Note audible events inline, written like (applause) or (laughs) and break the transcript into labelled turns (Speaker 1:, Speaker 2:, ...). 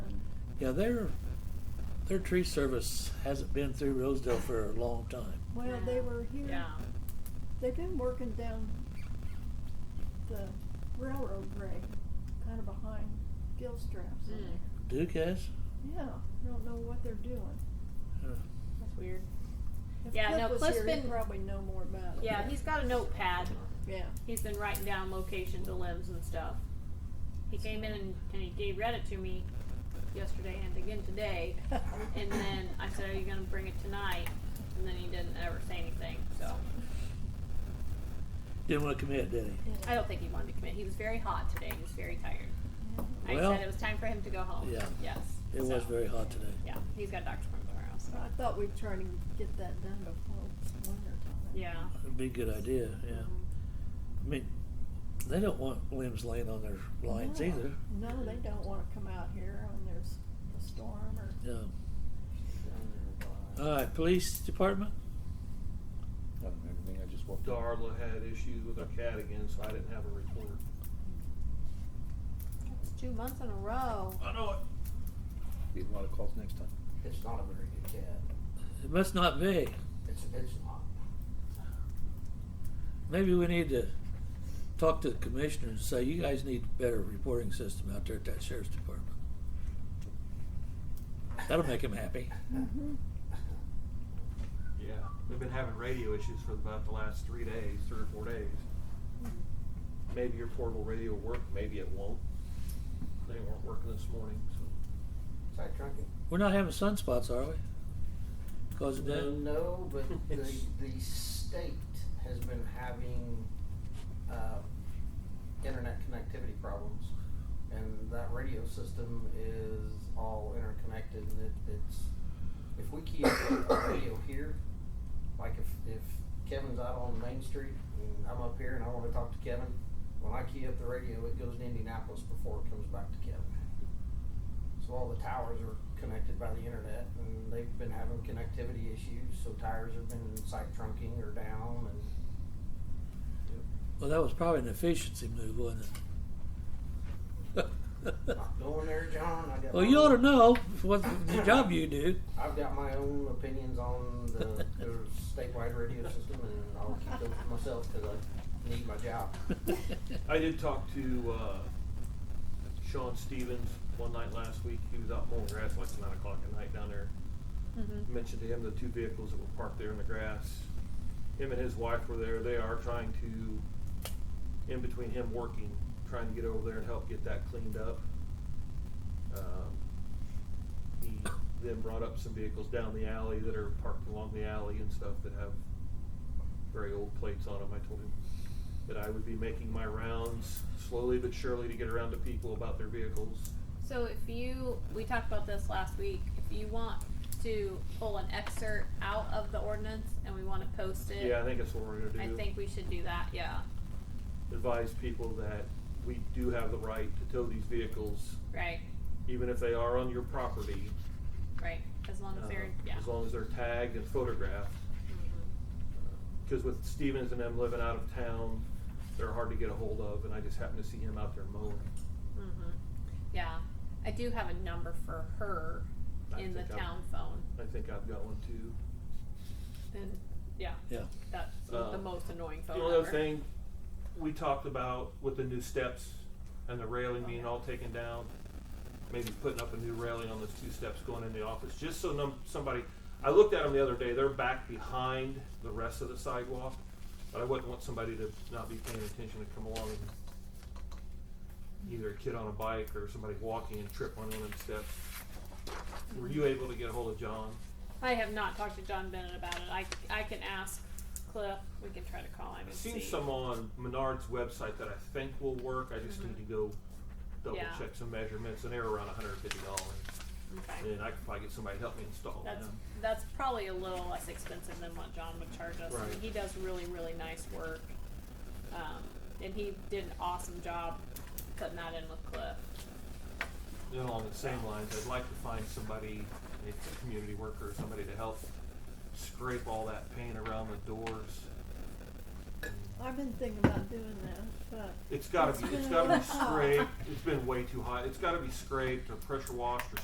Speaker 1: Yeah, their, their tree service hasn't been through Rosedale for a long time.
Speaker 2: Well, they were here,
Speaker 3: Yeah.
Speaker 2: they've been working down the railroad grade, kind of behind gill straps in
Speaker 3: Mm.
Speaker 2: there.
Speaker 1: Duke has?
Speaker 2: Yeah, I don't know what they're doing.
Speaker 1: Huh.
Speaker 3: That's weird.
Speaker 2: If
Speaker 3: Yeah, no,
Speaker 2: Cliff was
Speaker 3: Cliff's
Speaker 2: here, he'd
Speaker 3: been-
Speaker 2: probably know more about it.
Speaker 3: Yeah, he's got a notepad.
Speaker 2: Yeah,
Speaker 3: He's been writing down locations of limbs and stuff. He came in and, and he gave, read it to me yesterday and again today. And then I said, Are you going to bring it tonight? And then he didn't ever say anything. So
Speaker 1: Didn't want to commit, did he?
Speaker 2: yeah.
Speaker 3: I don't think he wanted to commit. He was very hot today. He was very tired.
Speaker 2: Yeah.
Speaker 3: I
Speaker 1: Well-
Speaker 3: said it was time for him to go home.
Speaker 1: Yeah.
Speaker 3: Yes.
Speaker 1: It was
Speaker 3: so,
Speaker 1: very hot today.
Speaker 3: Yeah. He's got a doctor's appointment tomorrow. So.
Speaker 2: So I thought we'd try to get that done before winter time.
Speaker 3: Yeah.
Speaker 1: It'd be a good idea, yeah. I mean, they don't want limbs laying on their lines
Speaker 2: No.
Speaker 1: either.
Speaker 2: No, they don't wanna come out here when there's a storm or.
Speaker 1: No. All right, police department?
Speaker 4: I don't remember anything, I just walked. in.
Speaker 5: Darla had issues with her cat again, so I didn't have a report.
Speaker 3: That's two months in a row.
Speaker 5: I know it.
Speaker 4: Be a lot of calls next time.
Speaker 6: It's not a very good cat.
Speaker 1: It must not be.
Speaker 6: It's, it's not.
Speaker 1: Maybe we need to talk to the commissioner and say, you guys need a better reporting system out there at that sheriff's department. That'll make him happy.
Speaker 2: Mm. Mm-hmm.
Speaker 5: Yeah, we've been having radio issues for about the last three days, three or four days. Maybe your portable radio will work, maybe it won't. They weren't working this morning, so.
Speaker 6: Is that drunken?
Speaker 1: We're not having sunspots, are we? Cause of
Speaker 6: No,
Speaker 1: that?
Speaker 6: No,
Speaker 1: (laughs)
Speaker 6: but the, the state has been having, uh, internet connectivity problems. And that radio system is all interconnected and it, it's, if we keep a radio here, like if, if Kevin's out on Main Street and I'm up here and I wanna talk to Kevin, when I key up the radio, it goes to Indianapolis before it comes back to Kevin. So all the towers are connected by the internet and they've been having connectivity issues, so tires have been side trunking or down and.
Speaker 1: Well, that was probably an efficiency move, wasn't it?
Speaker 6: Not going there, John, I got.
Speaker 1: Well,
Speaker 6: my
Speaker 1: you ought to
Speaker 6: own- (coughs)
Speaker 1: know what the job you do.
Speaker 6: I've got my own opinions on the,
Speaker 1: (laughs)
Speaker 6: the statewide radio system and I'll keep those to myself because I need my job.
Speaker 1: (laughs)
Speaker 5: I did talk to, uh, Sean Stevens one night last week. He was out mowing grass like nine o'clock at night down there.
Speaker 3: Mm-hmm.
Speaker 5: mentioned to him the two vehicles that were parked there in the grass. Him and his wife were there. They are trying to, in between him working, trying to get over there and help get that cleaned up. Um, he then brought up some vehicles down the alley that are parked along the alley and stuff that have very old plates on them. I told him that I would be making my rounds slowly but surely to get around to people about their vehicles.
Speaker 3: So if you, we talked about this last week. If you want to pull an excerpt out of the ordinance and we want to post it,
Speaker 5: Yeah, I think that's what we're gonna
Speaker 3: I
Speaker 5: do.
Speaker 3: think we should do that. Yeah,
Speaker 5: advise people that we do have the right to tow these vehicles,
Speaker 3: right,
Speaker 5: even if they are on your property.
Speaker 3: right. As long as
Speaker 5: uh,
Speaker 3: they're yeah. Mm-hmm.
Speaker 5: As long as they're tagged and photographed. Because with Stevens and them living out of town, they're hard to get a hold of, and I just happened to see him out there mowing.
Speaker 3: hmm Yeah, I do have a number for her
Speaker 5: I
Speaker 3: in the
Speaker 5: think I'll-
Speaker 3: town phone,
Speaker 5: I think I've got one too.
Speaker 3: and yeah,
Speaker 1: Yeah.
Speaker 3: that's
Speaker 5: Uh,
Speaker 3: the most annoying phone
Speaker 5: The only other
Speaker 3: number.
Speaker 5: thing we talked about with the new steps and the railing being all taken down, maybe putting up a new railing on those two steps going in the office, just so num- somebody, I looked at them the other day, they're back behind the rest of the sidewalk, but I wouldn't want somebody to not be paying attention to come along and either a kid on a bike or somebody walking and trip on one of them steps. Were you able to get a hold of John?
Speaker 3: I have not talked to John Bennett about it. I I can ask Cliff. We can try to call him.
Speaker 5: I've
Speaker 3: and
Speaker 5: seen
Speaker 3: see.
Speaker 5: some on Menard's website that I think will work. I just need to go double
Speaker 3: Mm-hmm. Yeah.
Speaker 5: check some measurements, and they're around hundred fifty dollars.
Speaker 3: Okay.
Speaker 5: And I could probably get somebody to help me install
Speaker 3: That's
Speaker 5: them.
Speaker 3: that's probably a little less expensive than what John would charge us. I mean,
Speaker 5: Right.
Speaker 3: he does really really nice work, um, and he did an awesome job putting that in with Cliff.
Speaker 5: And along the same lines, I'd like to find somebody, maybe a community worker, or somebody to help scrape all that paint around the doors.
Speaker 2: I've been thinking about doing that, but.
Speaker 5: It's gotta be, it's
Speaker 2: been- (laughs)
Speaker 3: (laughs)
Speaker 5: gotta be scraped. It's been way too hot. It's gotta be scraped or pressure washed or